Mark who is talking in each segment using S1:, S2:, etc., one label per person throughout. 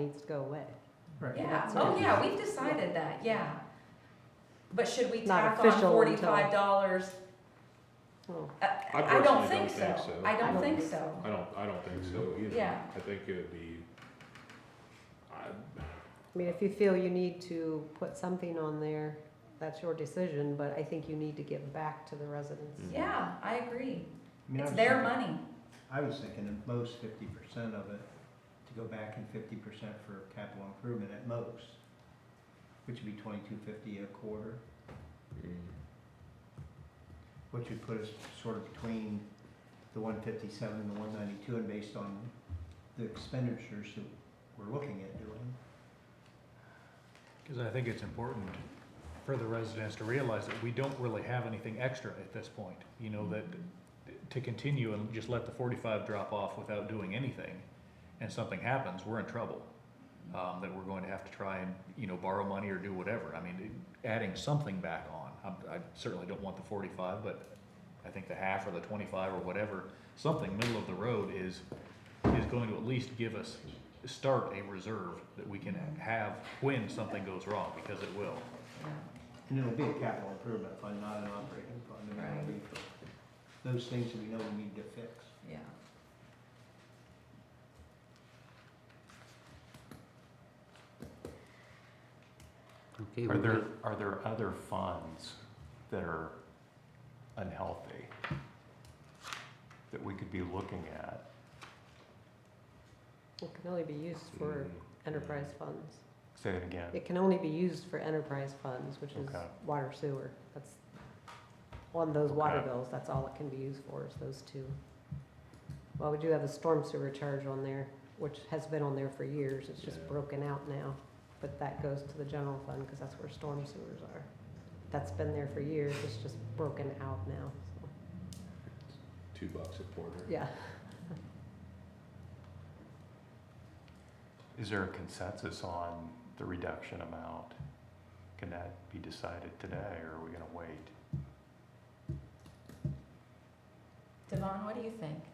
S1: needs to go away.
S2: Right.
S3: Yeah,
S1: That's
S3: oh
S1: right.
S3: yeah, we've decided that, yeah. But should we
S1: Not
S3: tack on
S1: official until-
S3: forty-five dollars?
S1: Well,
S3: I
S4: personally
S3: don't think so. I
S1: I
S3: don't
S1: don't
S3: think
S1: think
S3: so.
S4: I don't, I don't think so either.
S3: Yeah.
S4: I think it would be, I,
S1: I mean, if you feel you need to put something on there, that's your decision, but I think you need to give back to the residents.
S4: Mhm.
S3: Yeah, I agree.
S2: I mean, I
S3: It's
S2: was
S3: their
S2: thinking-
S3: money.
S2: I was thinking at most fifty percent of it, to go back and fifty percent for capital improvement at most, which would be twenty-two fifty a quarter,
S4: mm.
S2: which would put us sort of between the one fifty-seven and the one ninety-two, and based on the expenditures that we're looking at doing.
S5: Because I think it's important for the residents to realize that we don't really have anything extra at this point. You know, that to continue and just let the forty-five drop off without doing anything, and something happens, we're in trouble. Um, that we're going to have to try and, you know, borrow money or do whatever. I mean, adding something back on. I'm- I certainly don't want the forty-five, but I think the half or the twenty-five or whatever, something middle of the road is, is going to at least give us, start a reserve that we can have when something goes wrong, because it will.
S2: And it'll be a capital improvement fund, not an operating fund, and that'll be for those things that we know we need to fix.
S3: Yeah,
S6: Okay,
S7: Are
S6: we
S7: there,
S6: might-
S7: are there other funds that are unhealthy that we could be looking at?
S1: It can only be used for enterprise funds.
S7: Say it again.
S1: It can only be used for enterprise funds, which is
S7: Okay.
S1: water sewer. That's, on those water
S7: Okay.
S1: bills, that's all it can be used for, is those two. Well, we do have a storm sewer charge on there, which has been on there for years, it's just
S4: Yeah.
S1: broken out now. But that goes to the general fund, because that's where storm sewers are. That's been there for years, it's just broken out now, so,
S4: two bucks a quarter.
S1: yeah.
S7: Is there a consensus on the reduction amount? Can that be decided today or are we gonna wait?
S3: Devon, what do you think?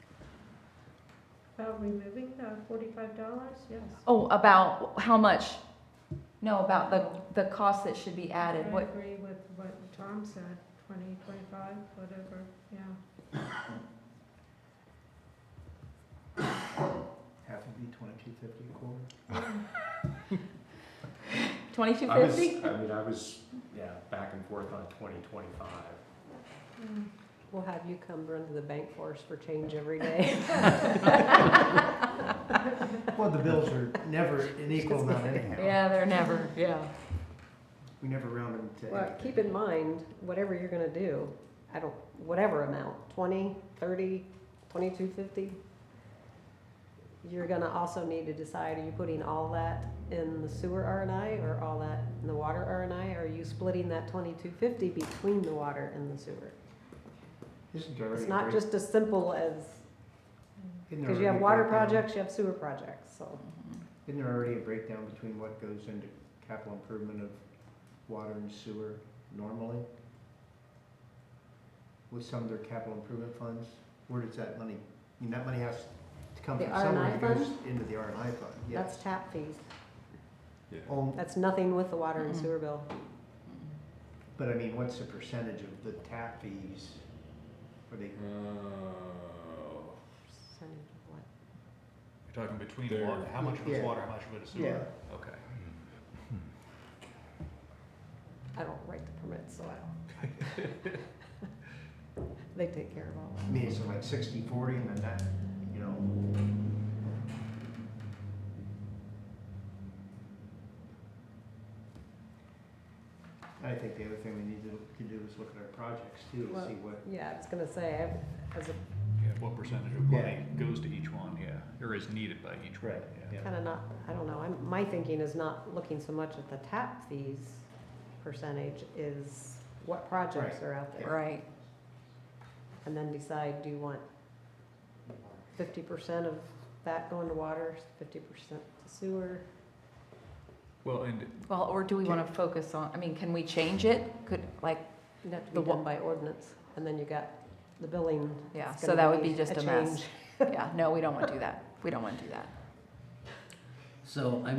S8: About removing the forty-five dollars, yes.
S3: Oh, about how much? No, about the, the cost that should be
S8: I
S3: added, what,
S8: agree with what Tom said, twenty, twenty-five, whatever, yeah.
S2: Half would be twenty-two fifty a quarter.
S3: twenty-two
S7: I was,
S3: fifty?
S7: I mean, I was, yeah, back and forth on twenty twenty-five.
S8: Mm.
S1: We'll have you come run to the bank for us for change every day.
S2: Well, the bills are never an equal amount anyhow.
S3: Yeah, they're never, yeah.
S2: We never round them to
S1: Well,
S2: anything.
S1: keep in mind, whatever you're gonna do, I don't, whatever amount, twenty, thirty, twenty-two, fifty, you're gonna also need to decide, are you putting all that in the sewer R and I, or all that in the water R and I? Are you splitting that twenty-two fifty between the water and the sewer?
S2: Isn't there already
S1: It's
S2: a
S1: not
S2: break-
S1: just as simple as,
S2: isn't there
S1: because you have
S2: already a
S1: water
S2: breakdown-
S1: projects, you have sewer projects, so.
S3: Mm-hmm.
S2: Isn't there already a breakdown between what goes into capital improvement of water and sewer normally? With some of their capital improvement funds, where does that money, I mean, that money has to come
S1: The
S2: from somewhere, it
S1: R&I
S2: goes into the R and I fund,
S1: That's
S2: yes.
S1: tap fees.
S4: Yeah.
S2: Oh,
S1: That's nothing with the water and
S3: Mm-mm.
S1: sewer bill.
S2: but I mean, what's the percentage of the tap fees? Are they,
S4: Oh,
S1: Percentage of what?
S5: You're talking between
S4: There-
S5: water, how much of it's
S2: Yeah.
S5: water, how much of it is
S2: Yeah.
S5: sewer? Okay.
S1: I don't write the permits, so I don't. They take care of all
S2: I mean, is it like sixty, forty, and then that, you know? I think the other thing we need to, to do is look at our projects too, to
S1: Well-
S2: see what,
S1: that. Yeah, I was gonna say, I've- as a,
S5: Yeah, what percentage of money goes to each one, yeah, or is needed by each one,
S2: Right,
S5: yeah.
S1: kinda not, I don't know, I'm, my thinking is not looking so much at the tap fees percentage, is what projects are out there.
S3: Right,
S1: And then decide, do you want fifty percent of that going to water, fifty percent to sewer?
S5: Well, and
S3: well, or do we wanna focus on, I mean, can we change it? Could, like,
S1: It'd have to
S3: The
S1: be
S3: wa-
S1: done by ordinance, and then you got the billing.
S3: yeah,
S1: It's
S3: so
S1: gonna
S3: that would be just a mess.
S1: change.
S3: Yeah, no, we don't wanna do that. We don't wanna do that.
S6: so I